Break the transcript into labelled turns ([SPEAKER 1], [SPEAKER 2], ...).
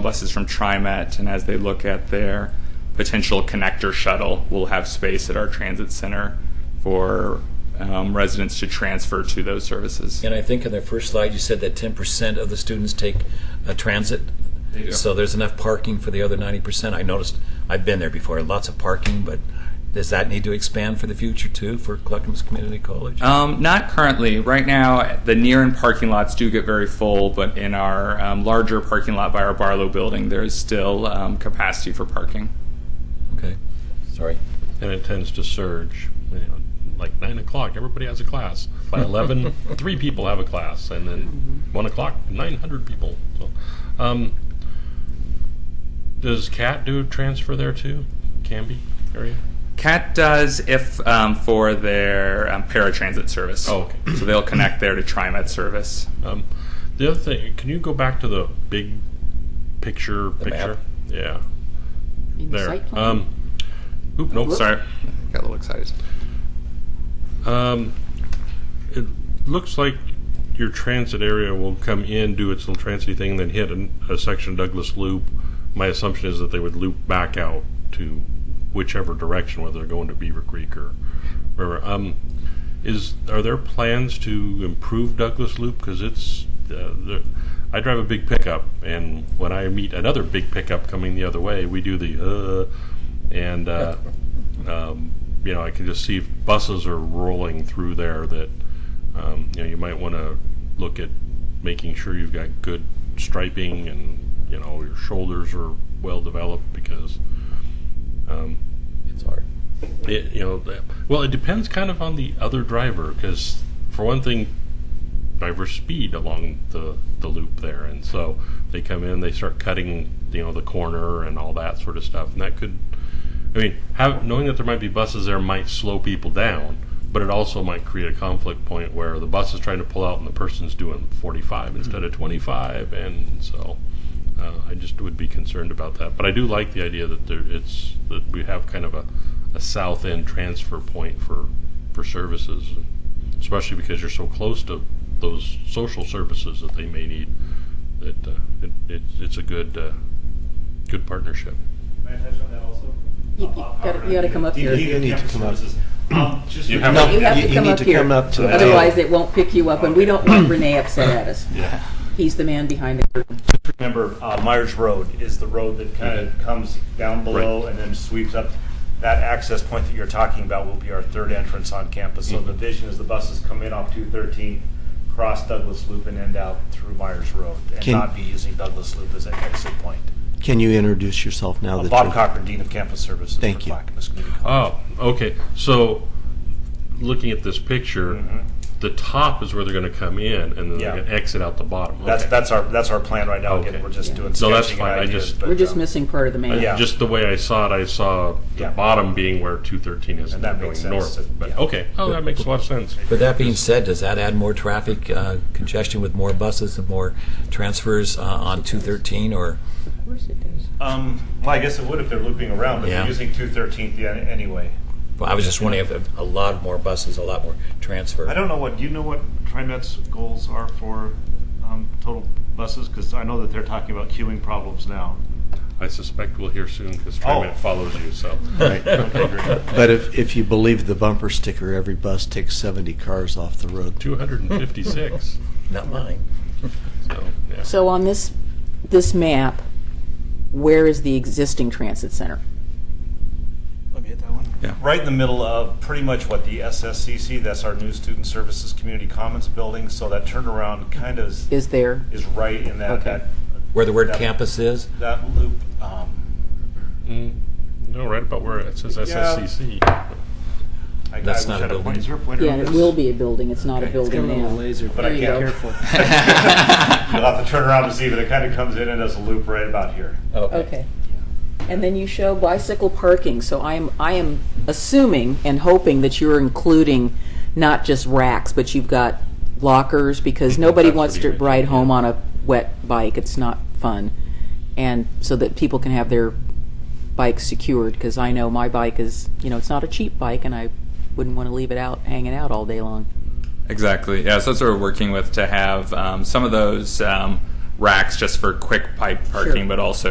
[SPEAKER 1] buses from TriMet, and as they look at their potential connector shuttle, we'll have space at our transit center for um, residents to transfer to those services.
[SPEAKER 2] And I think in their first slide, you said that 10% of the students take uh, transit.
[SPEAKER 1] They do.
[SPEAKER 2] So there's enough parking for the other 90%. I noticed, I've been there before, lots of parking, but does that need to expand for the future too, for Clackamas Community College?
[SPEAKER 1] Um, not currently. Right now, the near and parking lots do get very full, but in our um, larger parking lot by our Barlow building, there is still um, capacity for parking.
[SPEAKER 2] Okay, sorry.
[SPEAKER 3] and it tends to surge. You know, like nine o'clock, everybody has a class. By eleven, three people have a class, and then
[SPEAKER 4] Mm-hmm.
[SPEAKER 3] one o'clock, nine hundred people. So, um, does CAT do transfer there too? Canby area?
[SPEAKER 1] CAT does if um, for their um, paratransit service.
[SPEAKER 3] Oh, okay.
[SPEAKER 1] So they'll connect there to TriMet service.
[SPEAKER 3] Um, the other thing, can you go back to the big picture?
[SPEAKER 2] The
[SPEAKER 3] picture,
[SPEAKER 2] map?
[SPEAKER 3] yeah.
[SPEAKER 4] In the
[SPEAKER 3] There.
[SPEAKER 4] site plan?
[SPEAKER 3] Um, oop, nope,
[SPEAKER 4] Whoops.
[SPEAKER 3] sorry.
[SPEAKER 1] Got a little excited.
[SPEAKER 3] Um, it looks like your transit area will come in, do its little transity thing, then hit a, a section Douglas Loop. My assumption is that they would loop back out to whichever direction, whether they're going to Beaver Creek or wherever. Um, is are there plans to improve Douglas Loop because it's uh, the, I drive a big pickup, and when I meet another big pickup coming the other way, we do the uh, and uh, um, you know I can just see if buses are rolling through there that um, you know you might want to look at making sure you've got good striping and you know your shoulders are well developed because um,
[SPEAKER 2] It's hard.
[SPEAKER 3] it, you know, the- well, it depends kind of on the other driver because, for one thing, drivers speed along the the loop there, and so they come in, they start cutting, you know, the corner and all that sort of stuff, and that could, I mean, have, knowing that there might be buses there might slow people down, but it also might create a conflict point where the bus is trying to pull out and the person's doing 45 instead of 25, and so. Uh, I just would be concerned about that, but I do like the idea that there, it's that we have kind of a, a south end transfer point for for services, especially because you're so close to those social services that they may need. That uh, it, it, it's a good uh, good partnership.
[SPEAKER 5] May I touch on that also?
[SPEAKER 4] You- you
[SPEAKER 5] Uh,
[SPEAKER 4] gotta- you gotta come up here.
[SPEAKER 5] DPE
[SPEAKER 6] You need to
[SPEAKER 5] campus
[SPEAKER 6] come up.
[SPEAKER 5] services. Um, just
[SPEAKER 3] You
[SPEAKER 5] for-
[SPEAKER 3] have
[SPEAKER 6] No,
[SPEAKER 4] You have
[SPEAKER 6] You-
[SPEAKER 4] to
[SPEAKER 6] you
[SPEAKER 4] come
[SPEAKER 6] need
[SPEAKER 4] up
[SPEAKER 6] to
[SPEAKER 4] here,
[SPEAKER 6] come up to the
[SPEAKER 4] otherwise
[SPEAKER 6] table.
[SPEAKER 4] it won't pick you up, and we don't want Renee upset at us. He's the man behind the curtain.
[SPEAKER 5] remember uh, Myers Road is the road that kind
[SPEAKER 3] Mm-hmm.
[SPEAKER 5] of comes down below and then sweeps up. That access point that you're talking about will be our third entrance on campus. So the
[SPEAKER 3] Mm-hmm.
[SPEAKER 5] vision is the buses come in off 213, cross Douglas Loop and end out through Myers Road and
[SPEAKER 6] Can-
[SPEAKER 5] not be using Douglas Loop as an exit point.
[SPEAKER 6] Can you introduce yourself now?
[SPEAKER 5] Uh,
[SPEAKER 6] that
[SPEAKER 5] Bob
[SPEAKER 6] you're-
[SPEAKER 5] Cochran, Dean of Campus Services
[SPEAKER 6] Thank
[SPEAKER 5] for
[SPEAKER 6] you.
[SPEAKER 5] Clackamas Community College.
[SPEAKER 3] Oh, okay. So looking at this picture, the top is where they're going to come in, and then
[SPEAKER 5] Mm-hmm. Yeah.
[SPEAKER 3] they're going to exit out the bottom.
[SPEAKER 5] That's,
[SPEAKER 3] Okay.
[SPEAKER 5] that's our, that's our plan right now.
[SPEAKER 3] Okay.
[SPEAKER 5] Again, we're just doing
[SPEAKER 3] No, that's
[SPEAKER 5] sketching and
[SPEAKER 3] fine. I
[SPEAKER 5] ideas.
[SPEAKER 3] just-
[SPEAKER 5] but,
[SPEAKER 4] We're just
[SPEAKER 5] um,
[SPEAKER 4] missing part of the man.
[SPEAKER 5] Yeah.
[SPEAKER 3] Just the way I saw it, I saw the
[SPEAKER 5] Yeah.
[SPEAKER 3] bottom being where 213 is
[SPEAKER 5] And
[SPEAKER 3] now
[SPEAKER 5] that
[SPEAKER 3] going
[SPEAKER 5] makes sense.
[SPEAKER 3] north. But,
[SPEAKER 5] Yeah.
[SPEAKER 3] Okay. Oh, that makes a lot of sense.
[SPEAKER 2] But that being said, does that add more traffic uh, congestion with more buses and more transfers uh, on 213 or?
[SPEAKER 4] Of course it does.
[SPEAKER 5] Um, well, I guess it would if they're looping around, but
[SPEAKER 2] Yeah.
[SPEAKER 5] they're using 213th yeah, anyway.
[SPEAKER 2] Well, I was just wondering if a lot more buses, a lot more transfer.
[SPEAKER 5] I don't know what, do you know what TriMet's goals are for um, total buses? Because I know that they're talking about queuing problems now.
[SPEAKER 3] I suspect we'll hear soon because TriMet
[SPEAKER 5] Oh.
[SPEAKER 3] follows you. So
[SPEAKER 6] Right.
[SPEAKER 5] great.
[SPEAKER 6] But if, if you believe the bumper sticker, every bus takes 70 cars off the road.
[SPEAKER 3] 256.
[SPEAKER 2] Not mine.
[SPEAKER 3] so yeah.
[SPEAKER 4] So um- on this, this map, where is the existing transit center?
[SPEAKER 5] Let me hit that one.
[SPEAKER 1] Yeah.
[SPEAKER 5] Right in the middle of pretty much what the SSCC, that's our new Student Services Community Commons building, so that turnaround kind of is-
[SPEAKER 4] Is there?
[SPEAKER 5] is right in that,
[SPEAKER 4] Okay.
[SPEAKER 5] that,
[SPEAKER 2] Where the word
[SPEAKER 5] That-
[SPEAKER 2] campus is?
[SPEAKER 5] that loop. um,
[SPEAKER 3] Mm, no, right about where it says SSCC.
[SPEAKER 5] I- I
[SPEAKER 2] That's
[SPEAKER 5] wish
[SPEAKER 2] not
[SPEAKER 5] I
[SPEAKER 2] a
[SPEAKER 5] had
[SPEAKER 2] building.
[SPEAKER 5] Is there a pointer
[SPEAKER 4] Yeah,
[SPEAKER 5] on
[SPEAKER 4] it
[SPEAKER 5] this?
[SPEAKER 4] will be a building, it's not a building now.
[SPEAKER 5] But I
[SPEAKER 4] There you
[SPEAKER 5] can't.
[SPEAKER 4] go.
[SPEAKER 5] You'll have to turn around to see, but it kind of comes in and does a loop right about here.
[SPEAKER 4] Okay. And then you show bicycle parking, so I'm, I am assuming and hoping that you're including not just racks, but you've got lockers, because nobody
[SPEAKER 3] That's
[SPEAKER 4] wants
[SPEAKER 3] what
[SPEAKER 4] to
[SPEAKER 3] he mentioned,
[SPEAKER 4] ride home
[SPEAKER 3] yeah.
[SPEAKER 4] on a wet bike, it's not fun. And so that people can have their bikes secured, because I know my bike is, you know, it's not a cheap bike, and I wouldn't want to leave it out, hanging out all day long.
[SPEAKER 1] Exactly. Yeah, so that's what we're working with to have um, some of those um, racks just for quick pipe parking, but also